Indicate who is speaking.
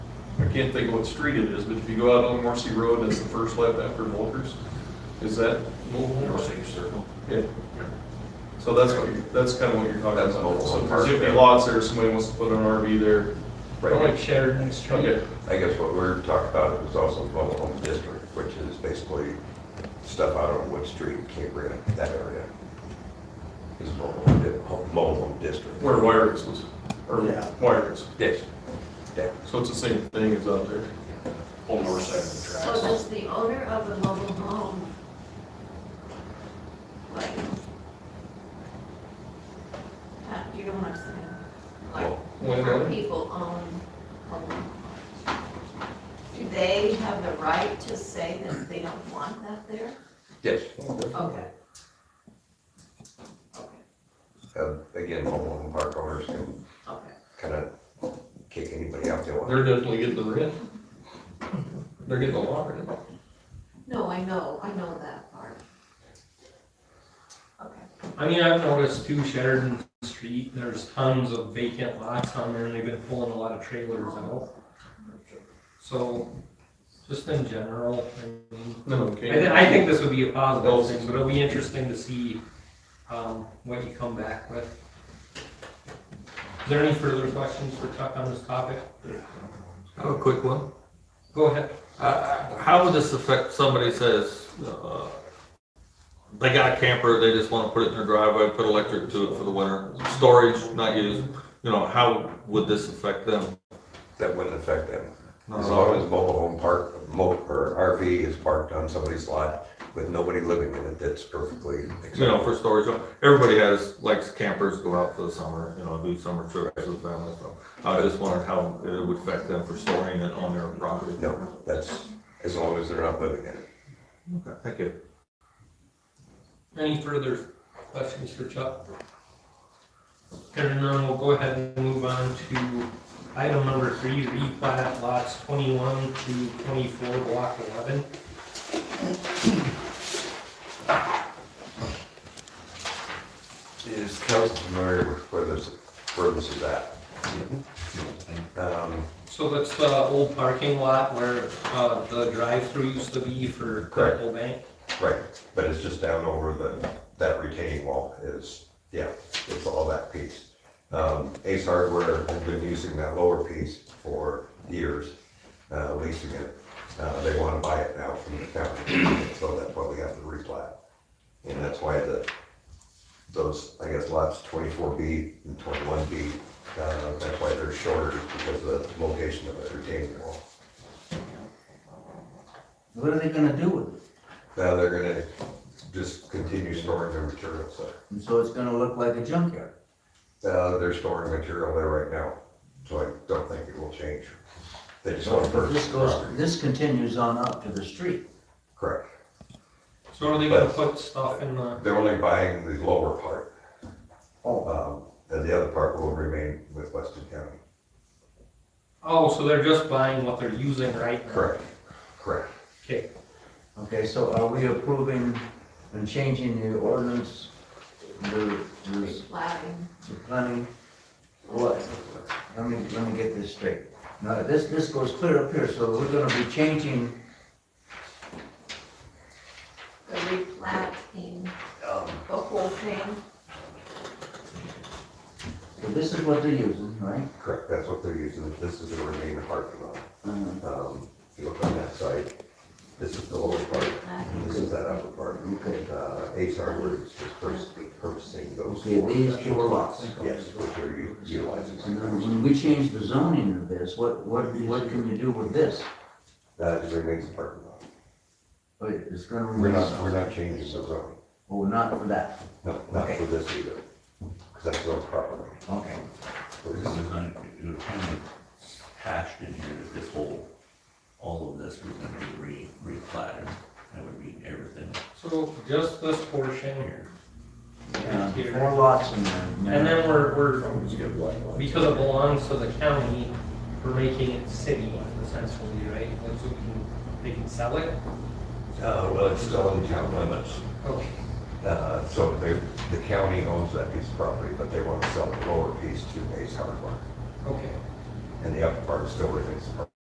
Speaker 1: I can't think of what street it is, but if you go out on Marcy Road, that's the first left after Volkers. Is that?
Speaker 2: North Circle.
Speaker 1: Yeah. So that's what, you- that's kind of what you're talking
Speaker 3: That's
Speaker 1: about.
Speaker 3: mobile
Speaker 1: So
Speaker 3: home
Speaker 1: there's
Speaker 3: park,
Speaker 1: empty
Speaker 3: yeah.
Speaker 1: lots there, somebody wants to put an RV there.
Speaker 3: Right,
Speaker 4: Sheridan
Speaker 1: Okay,
Speaker 3: I guess what we're talking about is also the mobile home district, which is basically stuff out on Wood Street, Camp Brennan, that area. Is mobile home, di- home- mobile home district.
Speaker 1: where Wires was, or
Speaker 4: Yeah.
Speaker 1: Wires.
Speaker 3: Yes, yeah,
Speaker 1: So it's the same thing as out there.
Speaker 2: Whole north side of
Speaker 5: So
Speaker 2: the tracks.
Speaker 5: does the owner of the mobile home, like, uh, you know what I'm saying? Like,
Speaker 1: Well-
Speaker 5: different people own mobile homes. Do they have the right to say that they don't want that there?
Speaker 3: yes.
Speaker 5: Okay. Okay,
Speaker 3: Uh, Again, mobile home park owners can
Speaker 5: okay.
Speaker 3: kind of kick anybody out they want.
Speaker 1: They're definitely getting the rent. They're getting a lot right now.
Speaker 5: No, I know, I know that part. Okay.
Speaker 4: I mean, I've noticed too Sheridan Street, there's tons of vacant lots on there and they've been pulling a lot of trailers out. So, just in general, I mean,
Speaker 1: No,
Speaker 4: I,
Speaker 1: okay.
Speaker 4: thi- I think this would be a positive thing, but it'll be interesting to see, um, what you come back with. Is there any further questions for Chuck on this topic?
Speaker 6: I have a quick one.
Speaker 4: Go ahead.
Speaker 6: Uh, how would this affect somebody says, uh, they got a camper, they just want to put it in their driveway, put electric to it for the winter, storage not used, you know, how would this affect them?
Speaker 3: That wouldn't affect them.
Speaker 6: Not
Speaker 3: As
Speaker 6: at
Speaker 3: long
Speaker 6: all.
Speaker 3: as mobile home park, mo- or RV is parked on somebody's lot with nobody living in it, that's perfectly
Speaker 6: You know,
Speaker 3: acceptable.
Speaker 6: for storage, everybody has, likes campers, go out for the summer, you know, do summer trips with family, so. I just wondered how it would affect them for storing it on their property.
Speaker 3: No, that's, as long as they're not living in it.
Speaker 6: Okay, Thank you.
Speaker 4: Any further questions for Chuck? Hearing none, we'll go ahead and move on to item number three, replat lots twenty-one to twenty-four, block eleven.
Speaker 3: Is council familiar with where this, where this is at? Um,
Speaker 4: So that's the old parking lot where, uh, the drive-through used to be for
Speaker 3: Correct.
Speaker 4: Coldwell Bank.
Speaker 3: Right, but it's just down over the, that retaining wall is, yeah, it's all that piece. Um, Ace Hardware has been using that lower piece for years, uh, leasing it. Uh, they want to buy it now from the county, so that's why we have the replat. And that's why the, those, I guess lots twenty-four B and twenty-one B, uh, that's why they're shorter because of the location of the retaining wall.
Speaker 7: What are they gonna do with it?
Speaker 3: Now they're gonna just continue storing their materials there.
Speaker 7: And so it's gonna look like a junkyard.
Speaker 3: Uh, they're storing material there right now, so I don't think it will change. They just want to
Speaker 7: But this
Speaker 3: purchase the
Speaker 7: goes,
Speaker 3: property.
Speaker 7: this continues on up to the street.
Speaker 3: Correct.
Speaker 4: So are they gonna put stuff in the,
Speaker 3: They're only buying the lower part,
Speaker 7: Oh.
Speaker 3: um, and the other part will remain with Weston County.
Speaker 4: oh, so they're just buying what they're using right now?
Speaker 3: Correct, correct.
Speaker 4: Okay,
Speaker 7: Okay, so are we approving and changing the ordinance, the, the
Speaker 5: Flatting.
Speaker 7: the planning? What? Let me, let me get this straight. Now, this, this goes clear up here, so we're gonna be changing,
Speaker 5: the replatting,
Speaker 7: um,
Speaker 5: the whole thing.
Speaker 7: so this is what they're using, right?
Speaker 3: Correct, that's what they're using, this is the remaining parking lot.
Speaker 7: Uh,
Speaker 3: Um, if you look on that side, this is the lower part, and this is that upper part.
Speaker 7: Okay.
Speaker 3: Uh, Ace Hardware is just purchasing, purchasing those.
Speaker 7: Okay, these
Speaker 3: four
Speaker 7: two are lots.
Speaker 3: Yes, which are u- utilizing.
Speaker 7: And then when we change the zoning of this, what, what, what can you do with this?
Speaker 3: That is Uh, remains a parking lot.
Speaker 7: Wait, It's gonna.
Speaker 3: We're not, we're not changing the zone.
Speaker 7: Oh, not for that.
Speaker 3: No, not for this either, because that's zone property.
Speaker 7: Okay.
Speaker 3: For
Speaker 2: This
Speaker 3: this-
Speaker 2: is un- It was kind of hashed in here that this whole, all of this was gonna be re, replatted. That would mean everything
Speaker 4: so just this portion
Speaker 2: here.
Speaker 7: Yeah,
Speaker 4: Here.
Speaker 7: Uh, Four lots in there.
Speaker 4: And then we're, we're
Speaker 1: Just get a black line.
Speaker 4: because it belongs to the county, we're making it city essentially, right? Like, so we can, they can sell it?
Speaker 3: Uh, well, it's still in town limits,
Speaker 4: Okay.
Speaker 3: uh, so they, the county owns that piece of property, but they want to sell the lower piece to Ace Hardware,
Speaker 4: Okay,
Speaker 3: and the upper part still remains a park.